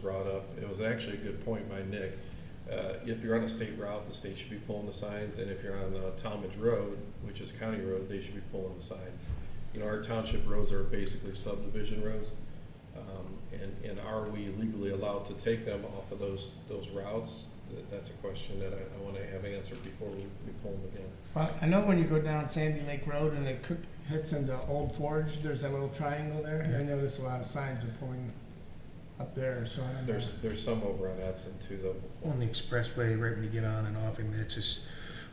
brought up, it was actually a good point by Nick. Uh, If you're on a state route, the state should be pulling the signs, and if you're on uh, Talmadge Road, which is a county road, they should be pulling the signs. You know, our township roads are basically subdivision roads, um, and, and are we legally allowed to take them off of those, those routes? That- That's a question that I, I want to have answered before we we pull them again. Well, I know when you go down Sandy Lake Road and it cook, hits into Old Forge, there's that little triangle there. I noticed a lot of signs are pulling up there, so I don't know. There's, there's some over on Edson too, though. on the expressway right when you get on and off. I mean, it's just,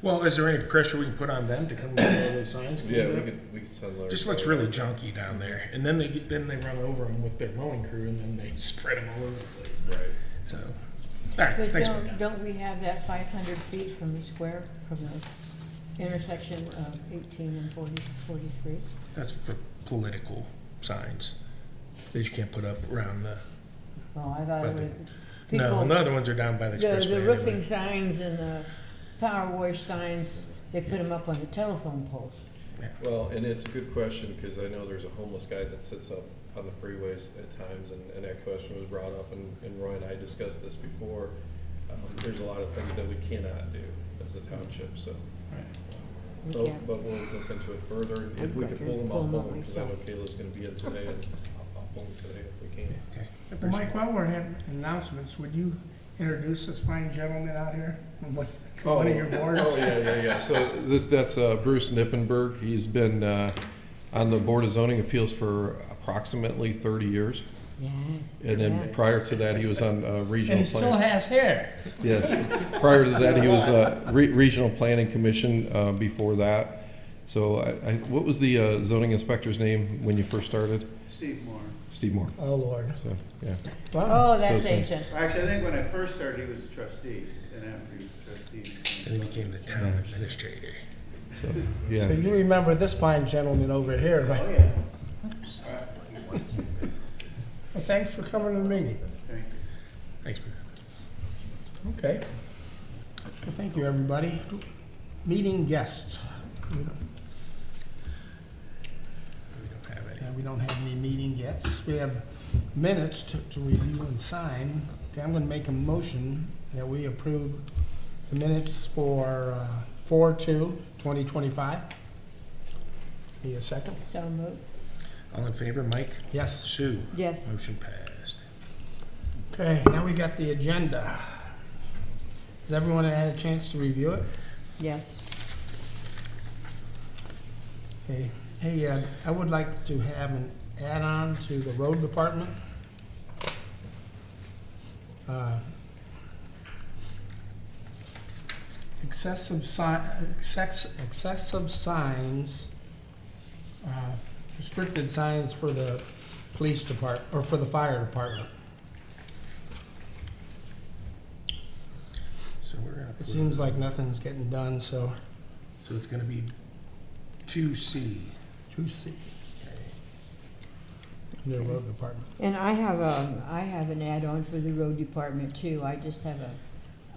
well, is there any pressure we can put on them to come with all those signs? Can we Yeah, do we that? could, we could send. Larry- Just looks really junky down there. And then they get, then they run over them with their mowing crew and then they spread them all over the place. Right. So, all right, But thanks, Mike. don't, don't we have that five hundred feet from the square, from the intersection of eighteen and forty, forty-three? That's for political signs that you can't put up around the, Well, I thought By it the- was. no, people- and the other ones are down by the The, the expressway. roofing anyway. signs and the power wash signs, they put them up on the telephone poles. Well, and it's a good question, because I know there's a homeless guy that sits up on the freeways at times, and, and that question was brought up, and, and Roy and I discussed this before. Um, there's a lot of things that we cannot do as a township, so, We Oh, but, can't- but we'll look into it further. If I've we got can to pull them, pull I'll 'em pull up them, because I know myself. Kayla's gonna be in today, and I'll, I'll pull them today if we can. Okay. I Well, appreciate Mike, while we're having announcements, would you introduce this fine gentleman out here from one one of your boards? Oh, yeah, yeah, yeah. So this, that's uh, Bruce Nippenberg. He's been uh, on the Board of Zoning Appeals for approximately 30 years. Yeah. And Yeah. then prior to that, he was on uh, And regional he still planning. has hair. Yes, prior to that, he was uh, re- Regional Planning Commission uh, before that. So I, I- what was the uh, zoning inspector's name when you first started? Steve Moore. Steve Moore. Oh, Lord. So, yeah. Wow. Oh, that's So it's ancient. Actually, I think when I first started, he was a trustee, and after he was trustee. it. And he became the town Mm-hmm. administrator. So, So yeah. you remember this fine gentleman over here, right? Oh, yeah, Well, thanks for coming to the meeting. thank you. Thanks, Bruce. Okay. Well, thank you, everybody. Meeting guests. We don't- We don't have any. Yeah, we don't have any meeting yet. We have minutes to, to review and sign. Okay, I'm gonna make a motion that we approve the minutes for, uh, four two, twenty twenty-five. Need a second? So moved. All in favor, Mike? Yes. Sue? Yes. Motion passed. Okay, now we got the agenda. Has everyone had a chance to review it? Yes. Hey, hey, uh, I would like to have an add-on to the road department. Uh, Excessive si- excess, excessive signs, uh, restricted signs for the police depart, or for the fire department. So we're gonna. It approve seems like nothing's getting done, so, So it's gonna be two C. to see, the road department. And I have a, I have an add-on for the road department too. I just have a,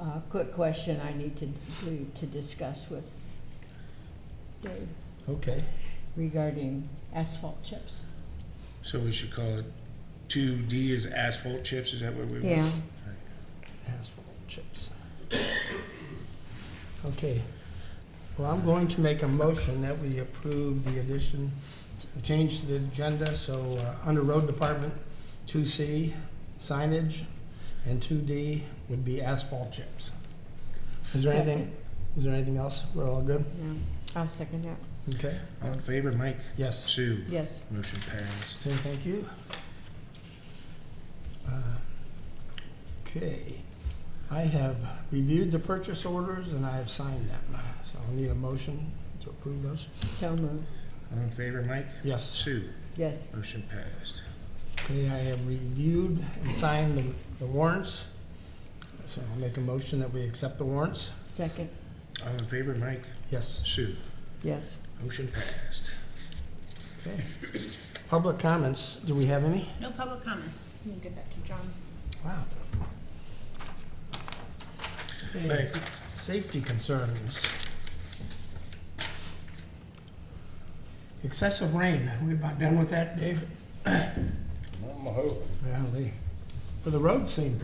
uh quick question I need to, to, to discuss with Dave Okay, regarding asphalt chips. So we should call it two D is asphalt chips, is that what we want? Yeah, asphalt chips. Okay, well, I'm going to make a motion that we approve the addition, change to the agenda, so, uh, under road department, two C signage, and two D would be asphalt chips. Is there anything, is there anything else? We're all good? yeah. I'll second that. Okay, All in favor, Mike? yes, Sue? Yes. Motion passed. Okay, thank you. Uh, Okay, I have reviewed the purchase orders and I have signed them, so I'll need a motion to approve those. So moved. All in favor, Mike? Yes, Sue? Yes. Motion passed. okay, I have reviewed and signed the the warrants, so I'll make a motion that we accept the warrants. Second. All in favor, Mike? Yes, Sue? Yes. Motion passed. okay. Public comments, do we have any? No public comments. You can give that to John. Wow. Okay, Thanks. Safety concerns. Excessive rain, we about done with that, Dave? I'm hoping. Golly. for the road thing.